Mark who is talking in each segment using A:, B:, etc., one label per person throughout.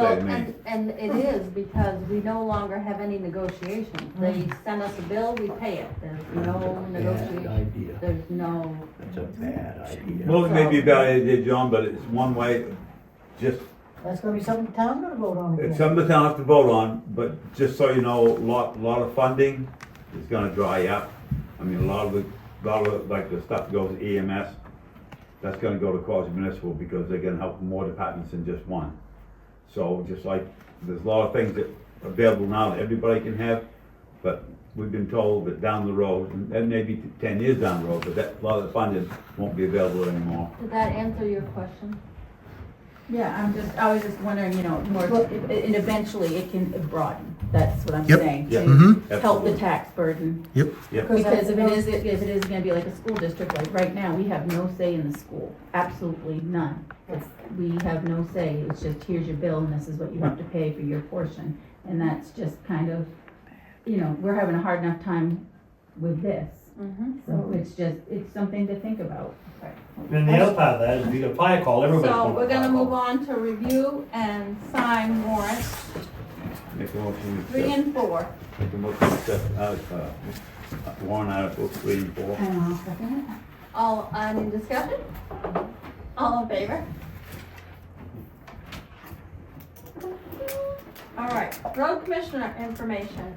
A: Well,
B: they mean.
A: And, and it is because we no longer have any negotiation. They send us a bill, we pay it. There's no
C: Bad
A: negotiation.
C: idea.
A: There's no,
C: That's a bad idea.
B: Well, it may be a bad idea, John, but it's one way, just,
D: That's gonna be something the town gonna vote on
B: it's
D: again.
B: something the town has to vote on, but just so you know, lot, lot of funding is gonna dry up. I mean, a lot of the, lot of, the- like, the stuff goes EMS, that's gonna go to Quasi Municipal because they're gonna help more departments than just one. So just like, there's a lot of things that are available now that everybody can have, but we've been told that down the road, and- and maybe ten years down the road, but that, a lot of the funding won't be available anymore.
A: did that answer your question?
E: Yeah, I'm just, I was just wondering, you know, more, and eventually it can broaden, that's what I'm
F: Yep.
E: saying.
B: Yeah.
F: Mhm.
E: To help the tax burden, because if it is, if it is gonna be like a school district, like right now, we have no say in the school, absolutely none. It's- We have no say, it's just, here's your bill and this is what you have to pay for your portion, and that's just kind of, you know, we're having a hard enough time with this,
A: Mm-hmm.
E: so it's just, it's something to think about.
G: Then the other part of that is we get a fire call, everybody's
E: So
G: going
E: we're
G: to
E: gonna
G: fire
E: move
G: call.
E: on to review and sign warrants
B: Make a motion to
E: three
B: accept,
E: and four.
B: make a motion to accept, uh, uh, warrant article three and four.
A: All, uh, any discussion? All in favor? All right, road commissioner information.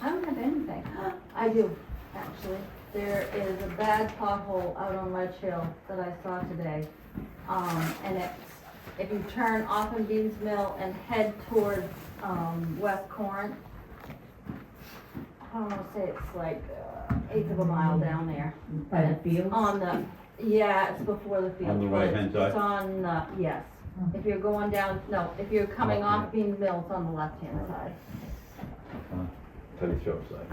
A: I don't have anything. I do, actually. There is a bad pothole out on Ledge Hill that I saw today. Um, and it's, if you turn off of Dean's Mill and head toward, um, West Corinth, I don't wanna say it's like uh, eighth of a mile down there.
E: By the field?
A: On the, yeah, it's before the field.
B: On the
A: but it's-
B: right-hand side?
A: It's on, uh, yes. If you're going down, no, if you're coming off Bean Mill, it's on the left-hand side.
B: Tell your shop side.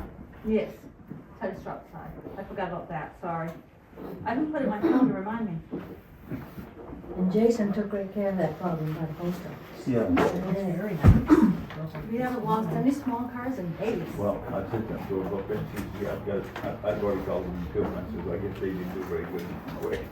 A: Yes, Teddy's drop side. I forgot about that, sorry. I didn't put it in my phone to remind me.
D: And Jason took great care of that problem by the post
B: Yeah,
D: office. Very nice.
A: We haven't lost any small cars in days.
B: well, I took that to a book, and she, I've got, I- I've already called them two months, so I guess they didn't do very good. in a way.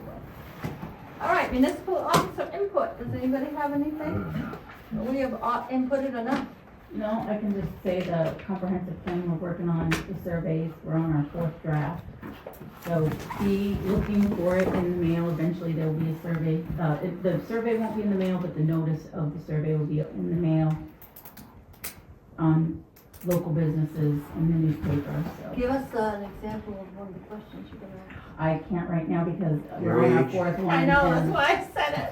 A: All right, municipal officer input. Does anybody have anything? We have uh, inputted enough.
E: No, I can just say the comprehensive plan, we're working on the surveys, we're on our fourth draft. So be looking for it in the mail, eventually there'll be a survey, uh, it- the survey won't be in the mail, but the notice of the survey will be in the mail on local businesses and the newspaper, so.
A: Give us uh, an example of one of the questions you're gonna ask.
E: I can't right now because we're on our
B: Reach.
E: fourth one. and
A: why I said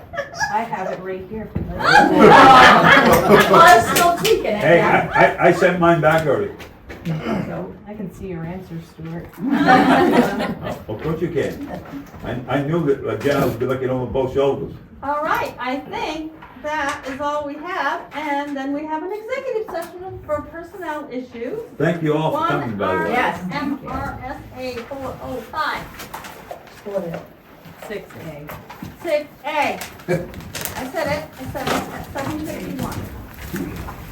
E: I have it right here.
A: Well, I'm
E: still tweaking it
B: Hey, I, I, I sent mine back already.
H: I can see your answers, Stuart.
B: Oh, Of course you can. I, I knew that, again, I would be looking over both shoulders.
A: All right, I think that is all we have, and then we have an executive session for personnel issues.
B: Oh, Thank you all for coming,
A: One
B: by the
A: R
B: way.
A: S M R S A four oh five,
D: For that.
H: Six A.
A: six A. I said it, I said it, seven fifty-one.